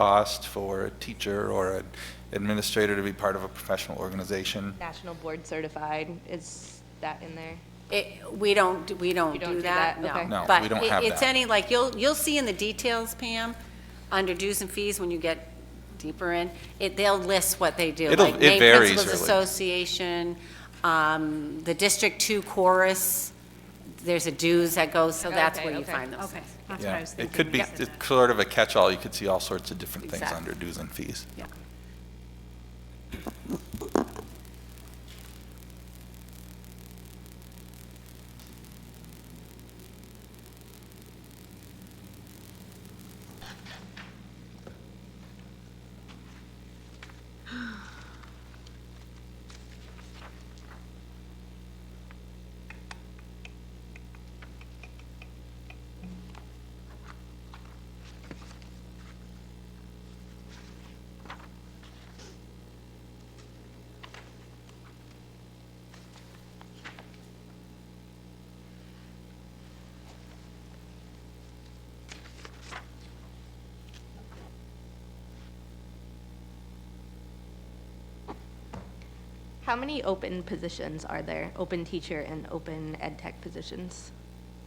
cost for a teacher or an administrator to be part of a professional organization. National Board Certified, is that in there? It, we don't, we don't You don't do do that, that? no. Okay. No, we don't have But it- it's that. any, like, you'll, you'll see in the details, Pam, under dues and fees, when you get deeper in, it, they'll list what they do. It'll- like it Maine varies, Principals really. Association, um, the District Two Chorus, there's a dues that goes, so that's Okay, where you okay, find those Okay, things. that's what Yeah, I was thinking. It could be, Yep. it's sort of a catch-all, you could see all sorts of different things Exactly. under dues and fees. Yeah. How many open positions are there, open teacher and open ed tech positions?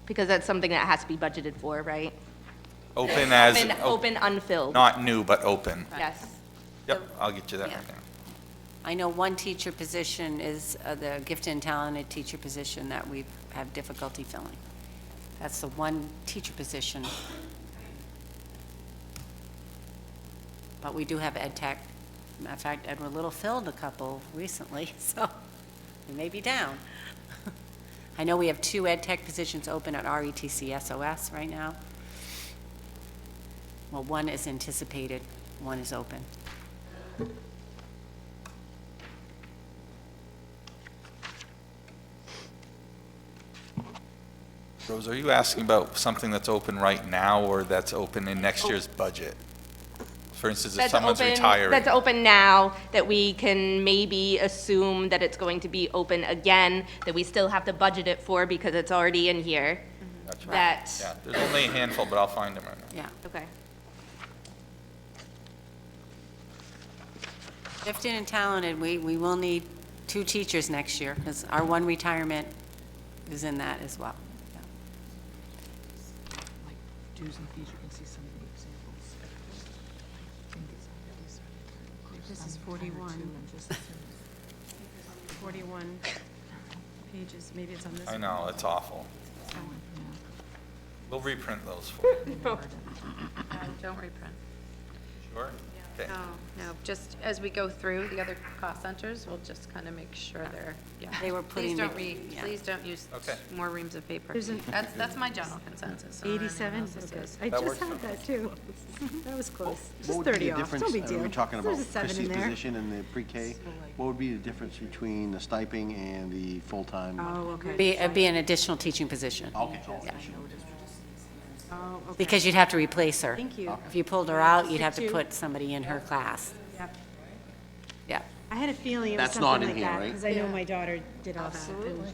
Because that's something that has to be budgeted for, right? Open as, Open, op- open unfilled, not new, but open. yes. Yep, I'll get you that Yeah. right now. I know one teacher position is uh, the gifted and talented teacher position that we have difficulty filling. That's the one teacher position. But we do have ed tech. Matter of fact, Edward Little filled a couple recently, so we may be down. I know we have two ed tech positions open at E RETC SOS right now. Well, one is anticipated, one is open. Rose, are you asking about something that's open right now or that's open in next year's budget? For instance, if That's someone's open- retiring. That's open now, that we can maybe assume that it's going to be open again, that we still have to budget it for because it's already in here. Gotcha. That, Yeah, there's only a handful, but I'll find them right now. Yeah. okay. Gifted and talented, we, we will need two teachers next year, because our one retirement is in that as well. like dues and fees, you can see some of the examples. I think it's already started. This is I'm tired too, 41. I'm just- 41 pages, maybe it's on this. I one. know, it's awful. We'll reprint those for you. Don't reprint. Sure? Okay. No, Um, no, just as we go through the other cost centers, we'll just kind of make sure they're, yeah. They were putting Please don't the- read, yeah. please don't use Okay. more reams of paper. There's an- That's, that's my general consensus. I don't know what anyone 87, else's Okay. is. I That just works had that too. That was close. What Just would be 30 the off, difference? no big uh, deal. Are we talking about There's a seven in Christie's there. position and the pre-K? What would be the difference between the stipend and the full-time? one? Oh, okay. Be, it'd be an additional teaching position, Okay, oh, I see. Oh, okay. because you'd have to replace her. Thank you. If you pulled her out, you'd have to Substitute. put somebody in her class. Yep. Yeah. I had a feeling it was That's not something like in here, that, right? because I know my daughter did all that. Absolutely.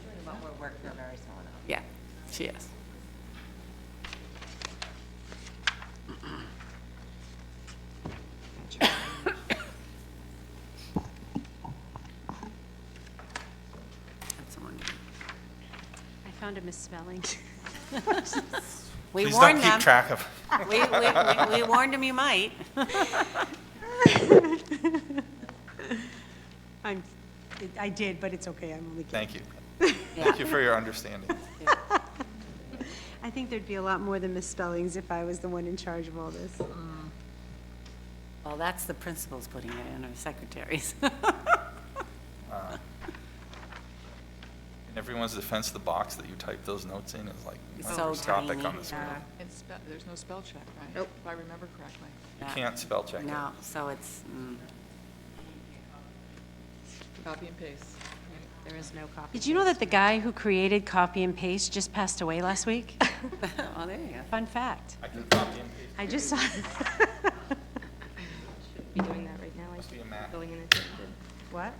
Yeah, she is. That's the one. I found a misspelling. We Please don't warned keep them. track of, We, we, we warned them you might. I'm, it- I did, but it's okay, I'm only kidding. thank you. Thank you for your understanding. I think there'd be a lot more than misspellings if I was the one in charge of all this. Well, that's the principals putting it in, or secretaries. In everyone's defense, the box that you type those notes in is like It's so microscopic on tiny. uh, the screen. It's, spe- there's no spell check, right? Nope. If I remember correctly. You can't spell check it. uh, No, so it's, mm, Copy and paste. There is no copy. Did you know that the guy who created copy and paste just passed away last week? oh, there you go. Fun fact. I can copy and paste, I just saw. Be doing that right now, I Must be a think, Mac. going in a. What?